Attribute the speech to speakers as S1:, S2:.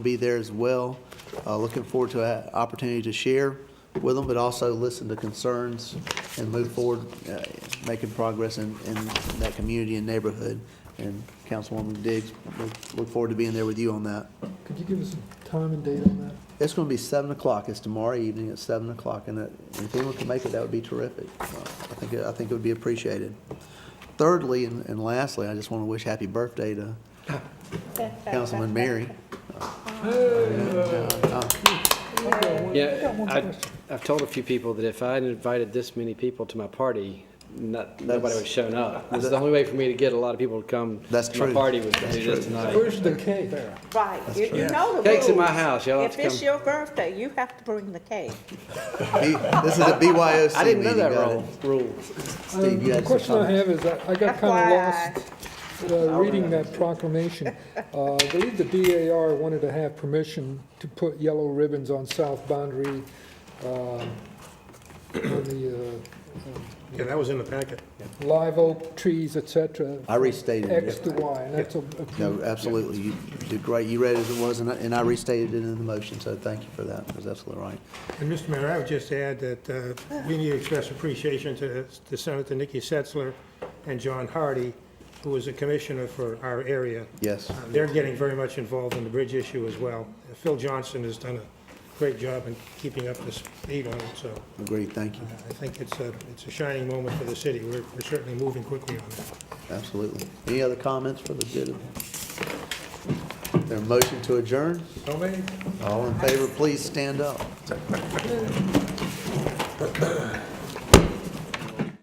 S1: be there as well. Uh, Looking forward to an opportunity to share with them, but also listen to concerns and move forward, uh, making progress in, in that community and neighborhood. And Councilwoman Diggs, look- look forward to being there with you on that.
S2: Could you give us a time and date on that?
S1: It's going to be 7 o'clock. It's tomorrow evening at 7 o'clock, and that- if anyone can make it, that would be terrific. Uh, I think, it- I think it would be appreciated. Thirdly, and and lastly, I just want to wish happy birthday to Councilman Mary.
S3: Yeah,
S2: got one
S3: I,
S2: question.
S3: I've told a few people that if I had invited this many people to my party, not, nobody would have shown up. This is the only way for me to get a lot of people to come
S1: That's
S3: to my
S1: true.
S3: party was to do this tonight.
S2: Where's the cake?
S4: Right, you you know the rules.
S3: Cake's in my house, y'all have
S4: If
S3: to
S4: it's
S3: come.
S4: your birthday, you have to bring the cake.
S1: B- This is a BYOC
S3: I didn't know
S1: meeting,
S3: that
S1: got it?
S3: rule, rule.
S1: Steve, you
S2: Uh, The
S1: had some
S2: question Um, I
S1: comments.
S2: have is, I I got kind
S4: FYI.
S2: of lost uh, reading that proclamation. Uh, I believe the DAR wanted to have permission to put yellow ribbons on south boundary, uh, on the
S5: Yeah, that was in the packet.
S2: uh, live oak trees, et cetera,
S1: I restated
S2: X
S1: it.
S2: to Y, and that's a- approved.
S1: No, absolutely. You did great. You read it as it was, and I- and I restated it in the motion, so thank you for that. That's absolutely right.
S5: And Mr. Mayor, I would just add that uh, we need to express appreciation to to Senator Nikki Setzler and John Hardy, who was a commissioner for our area.
S1: Yes.
S5: Uh, They're getting very much involved in the bridge issue as well. Phil Johnson has done a great job in keeping up the speed on it, so uh,
S1: Agreed. Thank you.
S5: I think it's a, it's a shining moment for the city. We're we're certainly moving quickly on that.
S1: Absolutely. Any other comments for the good of? Their motion to adjourn?
S5: So many?
S1: All in favor, please stand up.